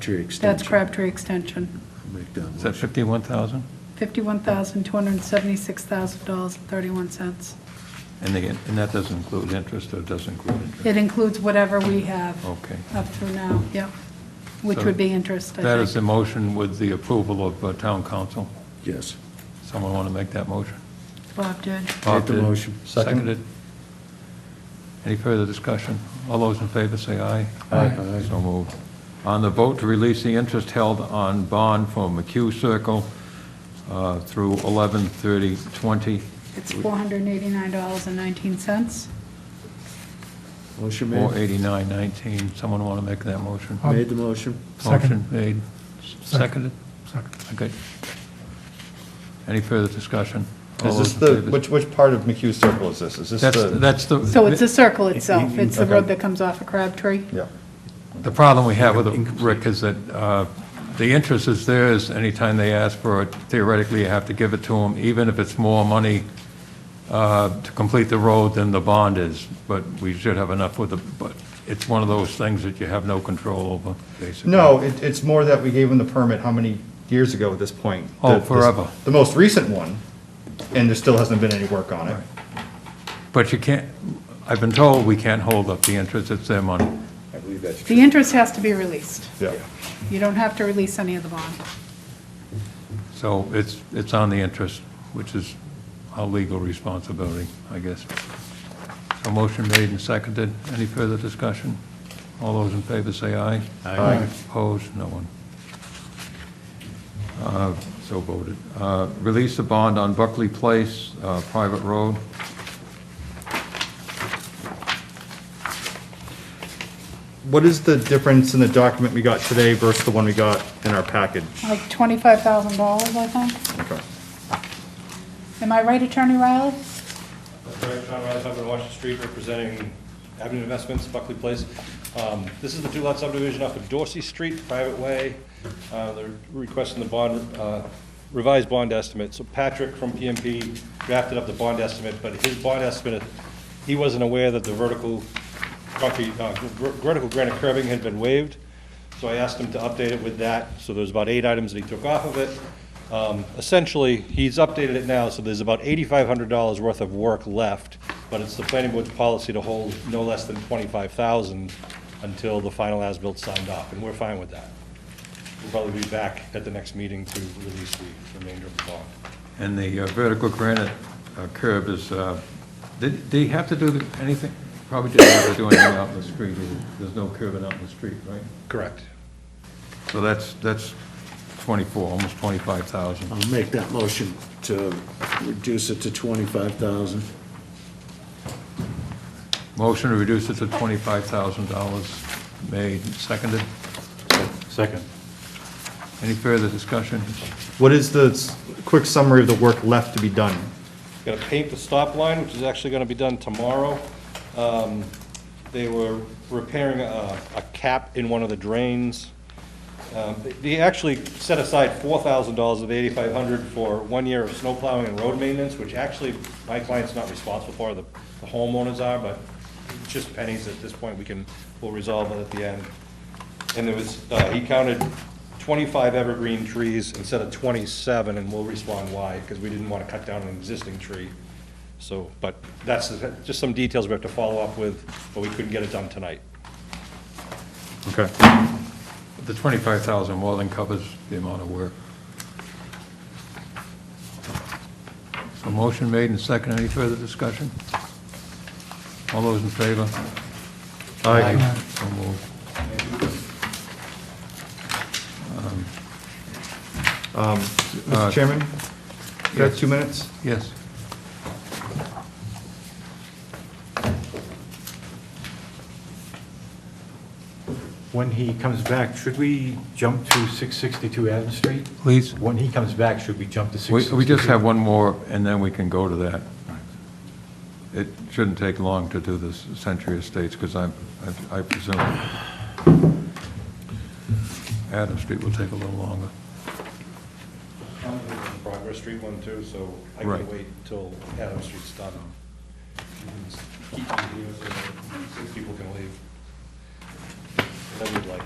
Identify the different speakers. Speaker 1: Tree extension.
Speaker 2: That's Crabtree Extension,
Speaker 1: Make that
Speaker 3: Is that
Speaker 1: motion.
Speaker 3: 51,000?
Speaker 2: $51,276,000.31.
Speaker 3: And again, and that doesn't include interest or doesn't include interest?
Speaker 2: It includes whatever we have.
Speaker 3: Okay.
Speaker 2: Up through now, yep, which
Speaker 3: So
Speaker 2: would be interest, I
Speaker 3: That is the
Speaker 2: think.
Speaker 3: motion with the approval of uh, town council.
Speaker 1: Yes.
Speaker 3: Someone want to make that motion?
Speaker 2: Bob did.
Speaker 3: Bob
Speaker 1: the
Speaker 3: did.
Speaker 1: motion. Second.
Speaker 3: Seconded. Any further discussion? All those in favor say aye.
Speaker 1: Aye. Aye.
Speaker 3: So moved. On the vote to release the interest held on bond for McHugh Circle uh, through 11/30/20.
Speaker 2: It's $489.19.
Speaker 1: Motion made.
Speaker 3: 48919. Someone want to make that motion?
Speaker 1: Made the motion.
Speaker 3: Motion
Speaker 4: Second.
Speaker 3: made, seconded, okay. Any further discussion? All
Speaker 5: Is this
Speaker 3: those in
Speaker 5: the,
Speaker 3: favor?
Speaker 5: which, which part of McHugh Circle is this? Is this
Speaker 3: Oh, That's,
Speaker 5: the?
Speaker 3: that's the.
Speaker 2: So it's a circle itself. It's the
Speaker 5: Okay.
Speaker 2: road that comes off of Crabtree.
Speaker 5: Yeah,
Speaker 3: The problem we have with it, Rick, is that uh, the interest is theirs, anytime they ask for it, theoretically, you have to give it to them, even if it's more money uh, to complete the road than the bond is, but we should have enough with the, but it's one of those things that you have no control over, basically.
Speaker 5: No, it, it's more that we gave them the permit how many years ago at this point?
Speaker 3: Oh,
Speaker 5: The- this-
Speaker 3: forever.
Speaker 5: The most recent one, and there still hasn't been any work on it.
Speaker 3: But you can't, I've been told we can't hold up the interest, it's their money.
Speaker 5: I believe that's
Speaker 2: The interest has to be released.
Speaker 5: Yeah,
Speaker 2: You don't have to release any of the bond.
Speaker 3: So it's, it's on the interest, which is our legal responsibility, I guess. So motion made and seconded. Any further discussion? All those in favor say aye. Aye. Opposed? No one. Uh, So voted. Uh, Release the bond on Buckley Place, uh, private road.
Speaker 5: What is the difference in the document we got today versus the one we got in our package?
Speaker 2: Like $25,000, I think.
Speaker 5: Okay.
Speaker 2: Am I right, Attorney Riley?
Speaker 6: Eric John Rice, I'm on Washington Street representing Avenue Investments, Buckley Place. Um, This is the two-lot subdivision off of Dorsey Street, private way. Uh, They're requesting the bond, uh, revised bond estimate. So Patrick from PMP drafted up the bond estimate, but his bond estimate, he wasn't aware that the vertical concrete, uh, ver- vertical granite curbing had been waived. So I asked him to update it with that, so there's about eight items that he took off of it. Um, Essentially, he's updated it now, so there's about eighty-five hundred dollars worth of work left, but it's the planning board's policy to hold no less than twenty-five thousand until the final as-bilt's signed off, and we're fine with that. We'll probably be back at the next meeting to release the remainder of the bond.
Speaker 3: And the uh, vertical granite uh, curb is, uh, did, did he have to do the- anything? Probably didn't have to do anything out in the street. There's no curbing out in the street, right?
Speaker 6: Correct.
Speaker 3: So that's, that's 24, almost 25,000.
Speaker 1: I'll make that motion to reduce it to 25,000.
Speaker 3: Motion to reduce it to $25,000 made, and seconded.
Speaker 1: Second.
Speaker 3: Any further discussion?
Speaker 5: What is the s- quick summary of the work left to be done?
Speaker 6: Got to paint the stop line, which is actually going to be done tomorrow. Um, They were repairing a a cap in one of the drains. Um, they- They actually set aside $4,000 of the 8,500 for one year of snow plowing and road maintenance, which actually my client's not responsible for, the the homeowners are, but it's just pennies at this point, we can, we'll resolve it at the end. And there was, uh, he counted 25 evergreen trees instead of 27, and we'll respond why, because we didn't want to cut down an existing tree. So, but that's just some details we have to follow up with, but we couldn't get it done tonight.
Speaker 5: Okay.
Speaker 3: The 25,000 more than covers the amount of work. So motion made and seconded. Any further discussion? All those in favor? Aye. So moved. Uh,
Speaker 5: Mr. Chairman, you have two minutes?
Speaker 3: Yes.
Speaker 7: When he comes back, should we jump to 662 Adams Street?
Speaker 3: Please.
Speaker 7: When he comes back, should we jump to
Speaker 3: We
Speaker 7: 662?
Speaker 3: we just have one more, and then we can go to that. It shouldn't take long to do this Century Estates, because I'm, I- I presume Adam Street will take a little longer.
Speaker 6: Progress Street one too, so I
Speaker 3: Right.
Speaker 6: can wait till Adam Street's done. Keep it here so that Six people can leave. Then we'd like.